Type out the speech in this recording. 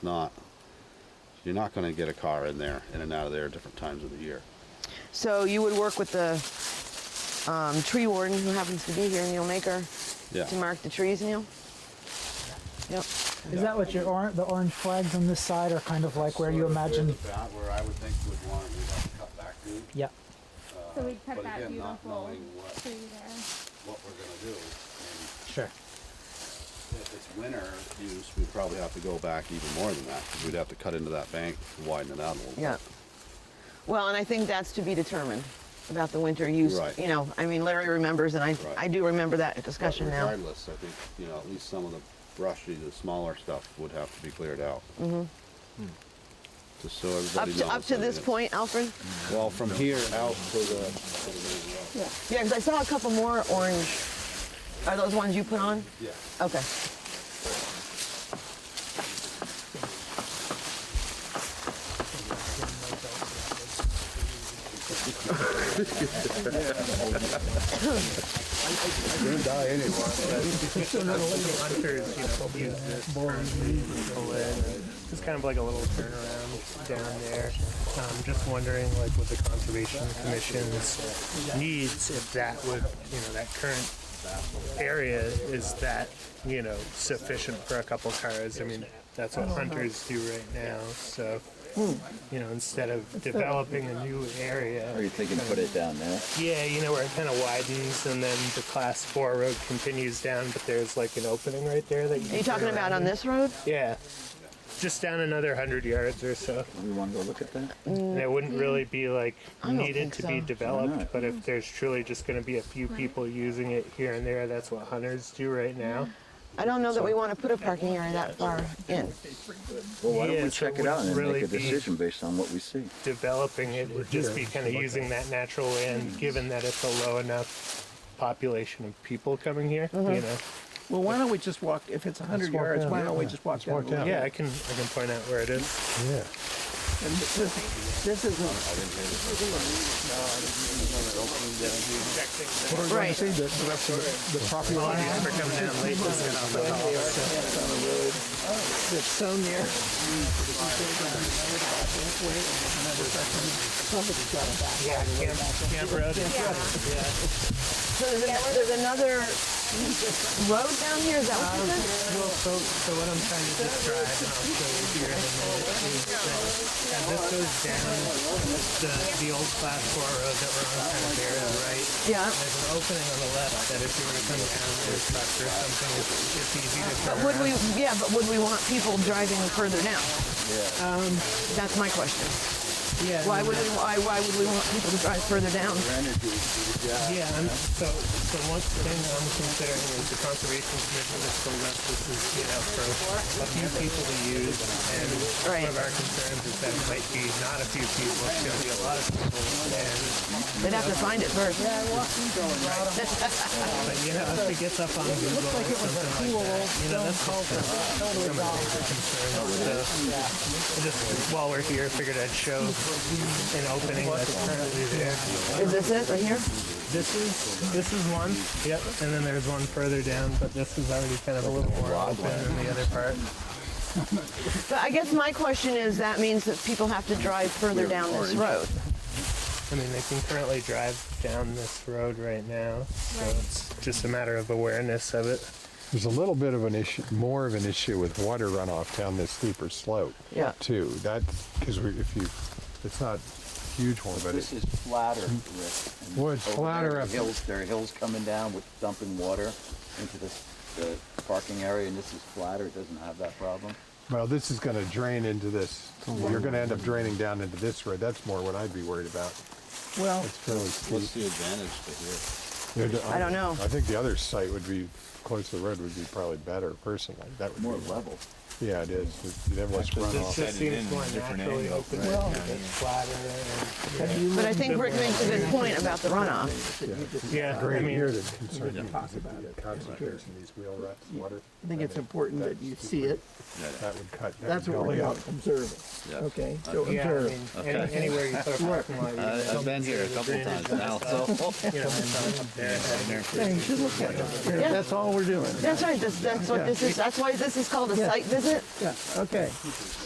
not. You're not going to get a car in there, in and out of there at different times of the year. So you would work with the um, tree warden who happens to be here, Neil Maker, Yeah. to mark the trees, Neil? Yep. Is that what your orange, the orange flags on this side are kind of like where you Sort of imagine? the bound- Where I would think we'd want, we'd have to cut back to, Yeah. So we'd cut but that again, not beautiful knowing what- tree there. what we're going to do. And Sure. if it's winter use, we'd probably have to go back even more than that, because we'd have to cut into that bank, and widen it out a little bit. Yeah. Well, and I think that's to be determined about the winter use. Right. You know, I mean, Larry remembers, and I, Right. I do remember that But discussion now. Regardless, I think, you know, at least some of the brushy, the smaller stuff would have to be cleared out. Just so Mm-hmm. Up everybody knows. Mm. to, up I to mean, this it's- point, Alfred? Well, from here out to the, Yeah, because I saw a couple more orange. Are those ones you put on? yeah, Okay. gonna die anyway. hunters, you know, use this turn to pull in. It's kind of like a little turnaround down there. Um, just wondering, like, with the conservation commission's needs, if that would, you know, that current area is that, you know, sufficient for a couple cars. I mean, that's what hunters do right now. So, you know, instead of developing a new area, Are you thinking put it down there? yeah, you know where it kind of widens and then the class four road continues down, but there's like an opening right there that you. Are you can talking turn about on around in. this road? Yeah, just down another hundred yards or so. Do we want to go look at that? And it wouldn't really be like don't needed think to so. be Why developed, not? but if there's truly just going to be a few people using it here and there, that's what hunters do right now. I don't know that we want to put a parking area that far in. Well, why don't Yeah, we so check it it out wouldn't and then make really a be- decision based on what we see? Developing it would just be kind of using that natural land, given that it's a low enough population of people coming here. Mm-hmm. You know. Well, why don't we just walk, if it's 100 walk yards, down, why don't we yeah. just walk down? walk the down. lane? Yeah, I can I can point out where it is. And this, this- this isn't, Right. If we're coming down late, just get off the call. it's so near. Yeah, Camp, Camp Road. So there's, an, there's another road down here. Is that what you said? Well, so, so what I'm trying to describe, and I'll show you here in a minute, is that this goes down the, the old class four road that we're on kind of there on the right. Yeah. There's an opening on the left that if you were to come down with a truck or something, it's, it's easy to turn But would we? around. Yeah, but would we want people driving further down? Um, That's my question. Yeah, Why and would we? Why, why would we want people to drive further down? Yeah, and so, so one thing I'm considering is the conservation commission is still left, this is, you know, for a few people to use, and Right. one of our concerns is that it might be not a few people, it's gonna be a lot of people, and, They'd have to find it first. but you know, if it gets up on Google or something like that, you know, that's all for some of the major concerns, so. I Just while we're here, figured I'd show an opening that's currently there. Is this it right here? This is this is one. Yep. And then there's one further down, but this is already kind of a little more open than the other part. But I guess my question is that means that people have to drive further down this road. I mean, they can currently drive down this road right now, so it's just a matter of awareness of it. There's a little bit of an issue, more of an issue with water runoff down this steeper slope. Yeah. Too. That's because if you, it's not a huge one, but This it's is flatter, Rick. and Well, it's over flatter there, up- Hills, there are hills coming down with dumping water into this, the parking area, and this is flatter, it doesn't have that problem. well, this is going to drain into this. You're going to end up draining down into this road. That's more what I'd be worried about. Well, It's fairly steep. What's the advantage to here? I don't know. I think the other site would be close to the road would be probably better personally. That would More be, level. Yeah, it is. You'd have less This runoff. just seems more naturally open. Well, it's flatter. And, have you But I looked- think Rick makes a good point about the runoff. yeah, I Great. Here mean, the concern would be the concentration of these wheel ruts, water. I think it's important that you see it. That would cut. that That's would what go we're down. about observing. Okay, so yeah, I mean, observe. any, anywhere you put a parking lot, you know, I've been here a couple times now, so. you know, it's up there. Yeah, you should look at it. Yeah. That's all we're doing. That's right. This, that's what this is. That's why this is called a site visit. it? Yeah, okay.